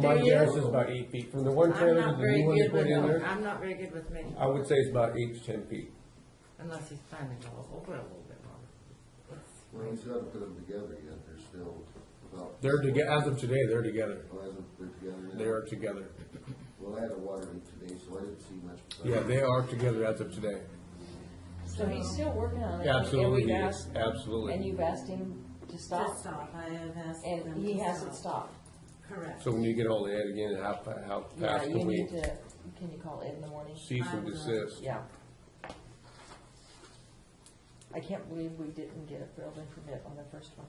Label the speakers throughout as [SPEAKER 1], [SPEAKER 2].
[SPEAKER 1] My
[SPEAKER 2] Do you?
[SPEAKER 1] guess is about eight feet, from the one
[SPEAKER 2] I'm
[SPEAKER 1] trailer
[SPEAKER 2] not
[SPEAKER 1] to the
[SPEAKER 2] very
[SPEAKER 1] new one you
[SPEAKER 2] good
[SPEAKER 1] put
[SPEAKER 2] with,
[SPEAKER 1] in there,
[SPEAKER 2] I'm not very good with measurements,
[SPEAKER 1] I would say it's about eight to ten feet.
[SPEAKER 2] unless he's planning to go over a little bit more.
[SPEAKER 3] Well, you still haven't put them together yet, they're still about.
[SPEAKER 1] They're together, as of today, they're together,
[SPEAKER 3] Well, hasn't put together yet.
[SPEAKER 1] they are together,
[SPEAKER 3] Well, I had a water leak today, so I didn't see much. but-
[SPEAKER 1] yeah, they are together as of today,
[SPEAKER 4] So he's still working on it.
[SPEAKER 1] absolutely,
[SPEAKER 4] And
[SPEAKER 1] he
[SPEAKER 4] we've
[SPEAKER 1] is.
[SPEAKER 4] asked- And
[SPEAKER 1] absolutely.
[SPEAKER 4] you've asked him to stop,
[SPEAKER 5] To stop, I have asked them
[SPEAKER 4] and he
[SPEAKER 5] to
[SPEAKER 4] hasn't
[SPEAKER 5] stop.
[SPEAKER 4] stopped.
[SPEAKER 5] Correct.
[SPEAKER 1] So when you get all that again, how, fa- how
[SPEAKER 4] Yeah,
[SPEAKER 1] fast
[SPEAKER 4] you
[SPEAKER 1] can we
[SPEAKER 4] need to, can you call Ed in the morning?
[SPEAKER 1] cease and
[SPEAKER 5] I will.
[SPEAKER 1] desist?
[SPEAKER 4] Yeah. I can't believe we didn't get a building permit on the first one.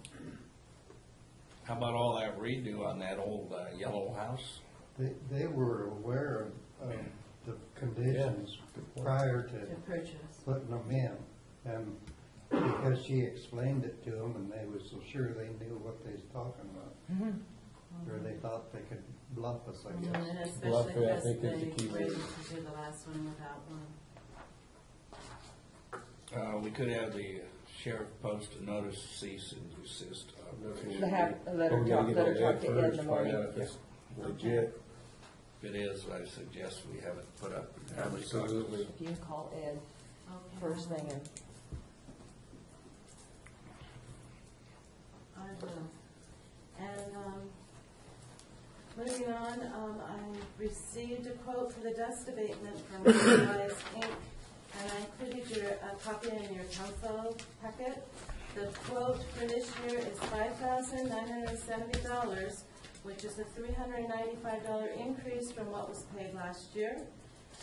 [SPEAKER 6] How about all that redo on that old uh, yellow house?
[SPEAKER 7] They, they were aware of, of the conditions prior
[SPEAKER 5] To
[SPEAKER 7] to
[SPEAKER 5] purchase.
[SPEAKER 7] putting them in. And because she explained it to them and they was so sure they knew what they was talking about. Or they thought they could bluff us, I
[SPEAKER 5] And
[SPEAKER 7] guess.
[SPEAKER 5] then
[SPEAKER 1] Bluff,
[SPEAKER 5] especially
[SPEAKER 1] yeah, I
[SPEAKER 5] because
[SPEAKER 1] think is the
[SPEAKER 5] they
[SPEAKER 1] key word.
[SPEAKER 5] waited to do the last one without one.
[SPEAKER 6] Uh, we could have the sheriff post a notice to cease and desist. operation.
[SPEAKER 4] The half, let
[SPEAKER 1] But
[SPEAKER 4] her
[SPEAKER 1] we gotta
[SPEAKER 4] talk,
[SPEAKER 1] get
[SPEAKER 4] let
[SPEAKER 1] all
[SPEAKER 4] her talk
[SPEAKER 1] that
[SPEAKER 4] to Ed in
[SPEAKER 1] first,
[SPEAKER 4] the
[SPEAKER 1] find
[SPEAKER 4] morning.
[SPEAKER 1] out if it's legit,
[SPEAKER 6] If it is, I suggest we have it put up.
[SPEAKER 1] absolutely.
[SPEAKER 4] If you can call Ed
[SPEAKER 5] Okay.
[SPEAKER 4] first thing and
[SPEAKER 5] I will. And, um, moving on, um, I received a quote for the dust abatement from Enterprise Inc. And I included your, a copy in your council packet. The quote for this year is five thousand nine hundred and seventy dollars, which is a three hundred and ninety-five dollar increase from what was paid last year.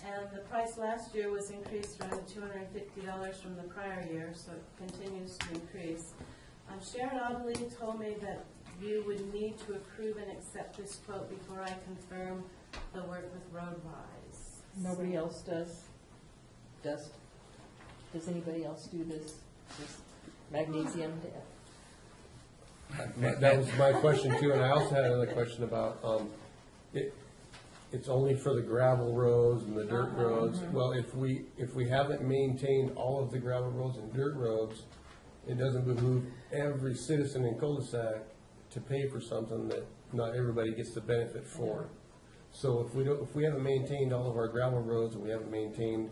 [SPEAKER 5] And the price last year was increased around two hundred and fifty dollars from the prior year, so it continues to increase. Um, Sharon Oddly told me that you would need to approve and accept this quote before I confirm the work with Roadwise.
[SPEAKER 4] nobody else does, does, does anybody else do this, this magnesium?
[SPEAKER 1] That that was my question too, and I also had another question about, um, it, it's only for the gravel roads and the dirt roads. Well, if we, if we haven't maintained all of the gravel roads and dirt roads, it doesn't behoove every citizen in cul-de-sac to pay for something that not everybody gets the benefit for. So if we don't, if we haven't maintained all of our gravel roads and we haven't maintained,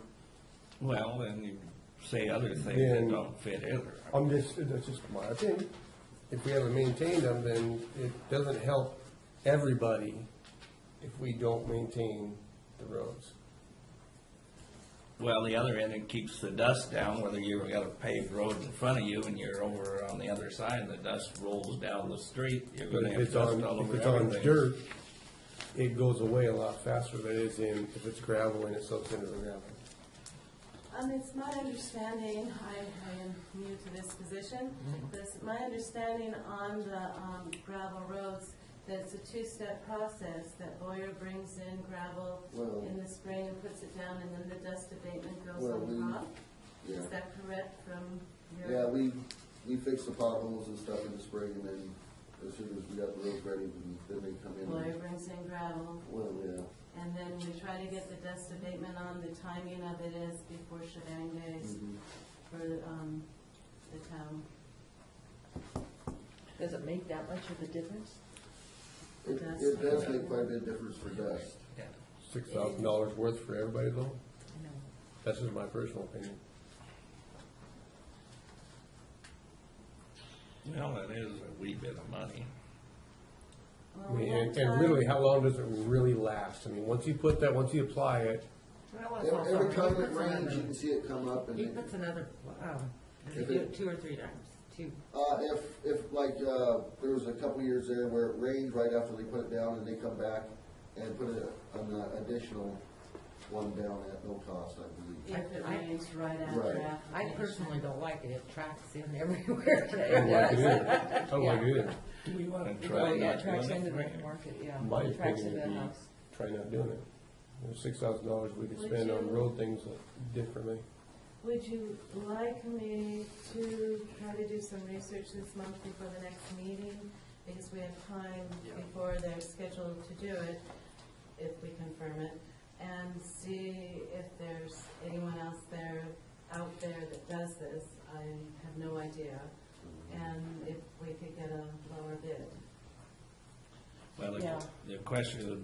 [SPEAKER 6] Well, then you say other things
[SPEAKER 1] Then-
[SPEAKER 6] that don't fit either.
[SPEAKER 1] I'm just, that's just my opinion. If we haven't maintained them, then it doesn't help everybody if we don't maintain the roads.
[SPEAKER 6] Well, the other end, it keeps the dust down, whether you've got a paved road in front of you and you're over on the other side and the dust rolls down the street, you're
[SPEAKER 1] But
[SPEAKER 6] gonna
[SPEAKER 1] if
[SPEAKER 6] have
[SPEAKER 1] it's
[SPEAKER 6] dust
[SPEAKER 1] on,
[SPEAKER 6] all
[SPEAKER 1] if
[SPEAKER 6] over
[SPEAKER 1] it's on
[SPEAKER 6] everything.
[SPEAKER 1] dirt, it goes away a lot faster than it is in, if it's gravel and it soaks into the gravel.
[SPEAKER 5] Um, it's my understanding, I, I am new to this position,
[SPEAKER 3] Mm-hmm.
[SPEAKER 5] but it's my understanding on the um, gravel roads, that it's a two-step process, that Boyer brings in gravel
[SPEAKER 3] Well-
[SPEAKER 5] in the spring and puts it down, and then the dust abatement goes
[SPEAKER 3] Well, we-
[SPEAKER 5] on top?
[SPEAKER 3] Yeah.
[SPEAKER 5] Is that correct from your?
[SPEAKER 3] Yeah, we, we fix the potholes and stuff in the spring, and then as soon as we got the roads ready, then then they come in.
[SPEAKER 5] Boyer
[SPEAKER 3] and-
[SPEAKER 5] brings in gravel,
[SPEAKER 3] Well, yeah,
[SPEAKER 5] and then we try to get the dust abatement on, the timing of it is before shebang days
[SPEAKER 3] Mhm.
[SPEAKER 5] for, um, the town.
[SPEAKER 4] Does it make that much of a difference?
[SPEAKER 3] it,
[SPEAKER 5] Dust.
[SPEAKER 3] it does make quite a bit of difference for dust.
[SPEAKER 6] Yeah.
[SPEAKER 1] Six thousand dollars worth for everybody though?
[SPEAKER 4] I know.
[SPEAKER 1] That's just my personal opinion.
[SPEAKER 6] Well, it is a wee bit of money.
[SPEAKER 5] Well,
[SPEAKER 1] I
[SPEAKER 5] we
[SPEAKER 1] mean,
[SPEAKER 5] had
[SPEAKER 1] and, and
[SPEAKER 5] Oh, time-
[SPEAKER 1] really, how long does it really last? I mean, once you put that, once you apply it,
[SPEAKER 2] Well, it's
[SPEAKER 3] Every every
[SPEAKER 2] also,
[SPEAKER 3] time it rains, you can see it come up, and
[SPEAKER 2] he
[SPEAKER 3] it
[SPEAKER 2] puts another, um, does he
[SPEAKER 3] If
[SPEAKER 2] do
[SPEAKER 3] it-
[SPEAKER 2] it two or three times, two.
[SPEAKER 3] Uh, if, if like, uh, there was a couple years there where it rained right after they put it down and they come back and put a- an additional one down at no cost, I believe.
[SPEAKER 5] If it rains right
[SPEAKER 3] Right.
[SPEAKER 5] after. after
[SPEAKER 2] I
[SPEAKER 5] it.
[SPEAKER 2] personally don't like it, it tracks in everywhere.
[SPEAKER 1] I don't like it either. I don't like it either.
[SPEAKER 6] Do we wanna
[SPEAKER 4] Oh,
[SPEAKER 6] try
[SPEAKER 4] yeah,
[SPEAKER 6] not
[SPEAKER 4] it tracks
[SPEAKER 6] doing
[SPEAKER 4] into the
[SPEAKER 6] it?
[SPEAKER 4] market, yeah.
[SPEAKER 1] My
[SPEAKER 4] It tracks
[SPEAKER 1] opinion
[SPEAKER 4] into
[SPEAKER 1] would
[SPEAKER 4] the
[SPEAKER 1] be
[SPEAKER 4] house.
[SPEAKER 1] try not doing it. There's six thousand dollars we could
[SPEAKER 5] Would
[SPEAKER 1] spend on
[SPEAKER 5] you-
[SPEAKER 1] road things differently.
[SPEAKER 5] Would you like me to try to do some research this month before the next meeting? Because we have time before they're scheduled to do it, if we confirm it, and see if there's anyone else there, out there that does this. I have no
[SPEAKER 3] Mm-hmm.
[SPEAKER 5] idea. And if we could get a lower bid.
[SPEAKER 6] Well,
[SPEAKER 4] Yeah.
[SPEAKER 6] the- the question would